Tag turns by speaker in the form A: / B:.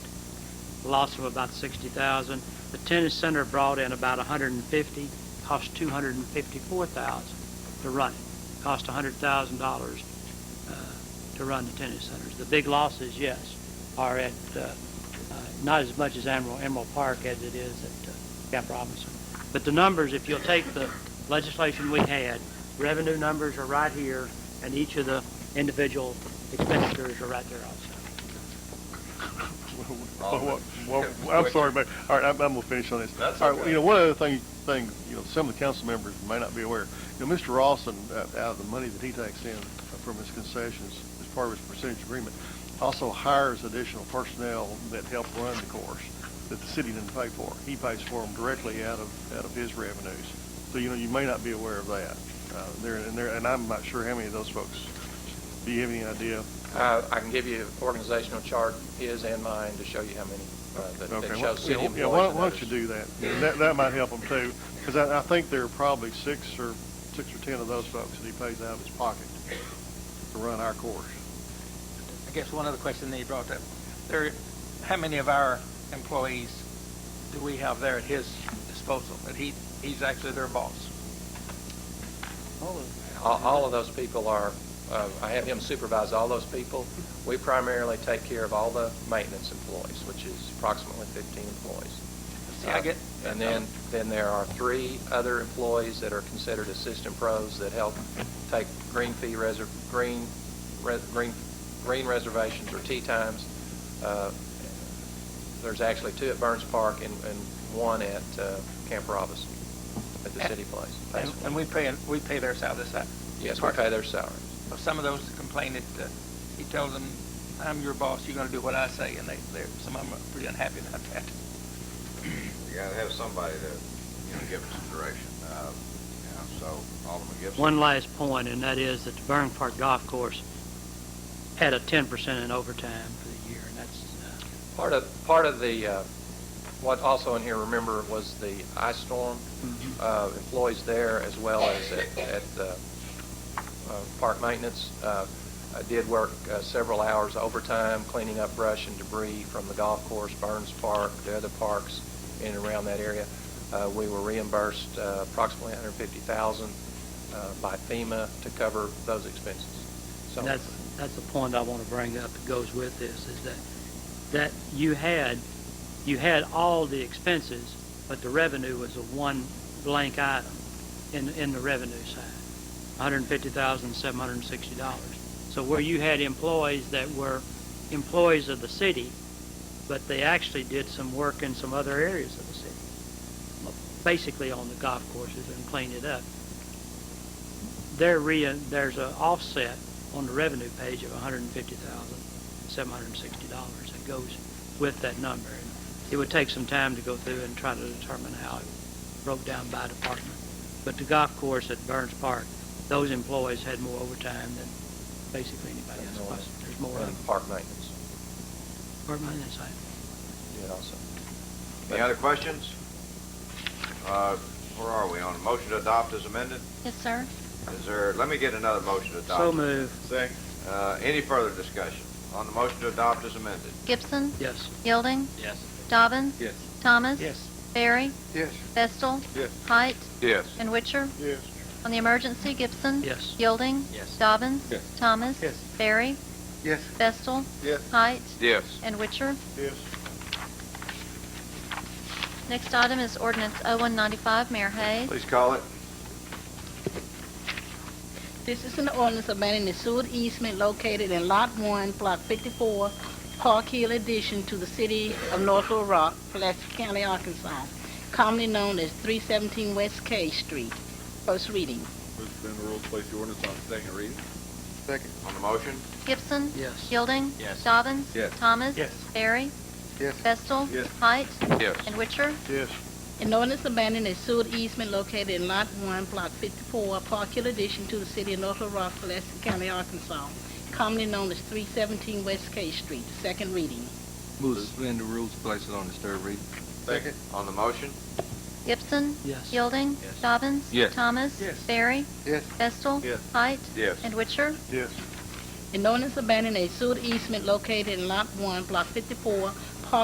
A: loss of about sixty thousand. The tennis center brought in about a hundred and fifty, cost two hundred and fifty-four thousand to run it. Cost a hundred thousand dollars, uh, to run the tennis centers. The big losses, yes, are at, uh, uh, not as much as Emerald, Emerald Park as it is at uh, Camp Robinson. But the numbers, if you'll take the legislation we had, revenue numbers are right here, and each of the individual expenditures are right there also.
B: Well, well, well, I'm sorry, but, all right, I'm, I'm gonna finish on this.
C: That's
B: All right,
C: okay.
B: You know, one other thing, thing, you know, some of the council members may not be aware, you know, Mr. Rawson, uh, out of the money that he takes in from his concessions as part of his percentage agreement, also hires additional personnel that help run the course that the city didn't pay for. He pays for them directly out of, out of his revenues. So, you know, you may not be aware of that. Uh, there, and there, and I'm not sure how many of those folks, do you have any idea?
D: Uh, I can give you organizational chart, his and mine, to show you how many, uh, that- that
B: Okay,
D: shows city
B: well,
D: employees.
B: yeah, why
D: and
B: why
D: others.
B: don't you do that? And That, that might help them too, because I, I think there are probably six or, six or 10 of those folks that he pays out of his pocket to run our course.
E: I guess one other question that you brought up, there, how many of our employees do we have there at his disposal, that he, he's actually their boss?
D: All, all of those people are, uh, I have him supervise all those people. We primarily take care of all the maintenance employees, which is approximately 15 employees.
E: See, I get-
D: Uh, And then, then there are three other employees that are considered assistant pros that help take green fee reser, green, res- green, green reservations or tea times. Uh, There's actually two at Burns Park and, and one at uh, Camp Robinson at the city place.
E: And and we pay, we pay their salary, this,
D: Yes, we pay their salary.
E: Well, Some of those complain that uh, he tells them, I'm your boss, you're going to do what I say, and they, they're, some of them are pretty unhappy about that.
C: You gotta have somebody to, you know, give us some direction, uh, you know, so Alderman Gibson.
A: One last point, and that is that the Burn Park Golf Course had a ten percent in overtime for the year, and that's, uh,
D: Part of, part of the, uh, what also in here, remember, was the ice storm
A: Mm-hmm.
D: uh, employees there as well as at, at uh, uh, park maintenance. Uh, I did work uh, several hours overtime cleaning up brush and debris from the golf course, Burns Park, the other parks in and around that area. Uh, We were reimbursed uh, approximately $150,000 uh, by FEMA to cover those expenses. So
A: And that's, that's the point I want to bring up that goes with this, is that, that you had, you had all the expenses, but the revenue was a one blank item in, in the revenue side, hundred and fifty thousand, seven hundred and sixty dollars. So where you had employees that were employees of the city, but they actually did some work in some other areas of the city, basically on the golf courses and cleaned it up there re, there's an offset on the revenue page of hundred and fifty thousand, seven hundred and sixty dollars that goes with that number. And It would take some time to go through and try to determine how it broke down by department. But the golf course at Burns Park, those employees had more overtime than basically anybody else. was. There's more
D: And
A: of,
D: park maintenance,
A: pardon my insight.
D: did also.
C: Any other questions? Uh, where are we on? Motion to adopt is amended?
F: Yes, sir.
C: Is there, let me get another motion to adopt.
A: So move,
C: Second. Uh, any further discussion on the motion to adopt is amended?
F: Gibson.
A: yes.
F: Yielding.
D: Yes.
F: Dobbins.
D: Yes.
F: Thomas.
E: Yes.
F: Barry.
C: Yes.
F: Vestal.
C: Yes.
F: Height.
C: Yes.
F: And Witcher.
C: Yes.
F: On the emergency, Gibson.
A: Yes.
F: Yielding.
D: Yes.
F: Dobbins.
C: Yes.
F: Thomas.
E: Yes.
F: Barry.
C: Yes.
F: Vestal.
C: Yes.
F: Height.
C: Yes.
F: And Witcher.
C: Yes.
F: Next item is ordinance 0195, Mayor Hayes.
C: Please call it.
G: This is an ordinance abandoning the sewer easement located in Lot 1, Block 54, Park Hill addition to the city of North Little Rock, Pulaski County, Arkansas, commonly known as 317 West K Street. First reading.
H: Move to suspend the rules, place the ordinance on second reading.
C: Second. On the motion?
F: Gibson.
A: Yes.
F: Yielding.
D: Yes.
F: Dobbins.
H: Yes.
F: Thomas.
E: Yes.
F: Barry.
C: Yes.
F: Vestal.
H: Yes.
F: Height.
C: Yes.
F: And Witcher.
C: Yes.
G: An ordinance abandoning a sewer easement located in Lot 1, Block 54, Park Hill addition to the city of North Little Rock, Pulaski County, Arkansas, commonly known as 317 West K Street. Second reading.
H: Move to suspend the rules, place it on its third reading.
C: Second. On the motion?
F: Gibson.
A: Yes.
F: Yielding. Dobbins.
H: Yes.
F: Thomas.
E: Yes.
F: Barry.
C: Yes.
F: Vestal.
C: Yes.
F: Height.
C: Yes.
F: And Witcher.
C: Yes.
G: An ordinance abandoning a sewer easement located in Lot 1, Block 54,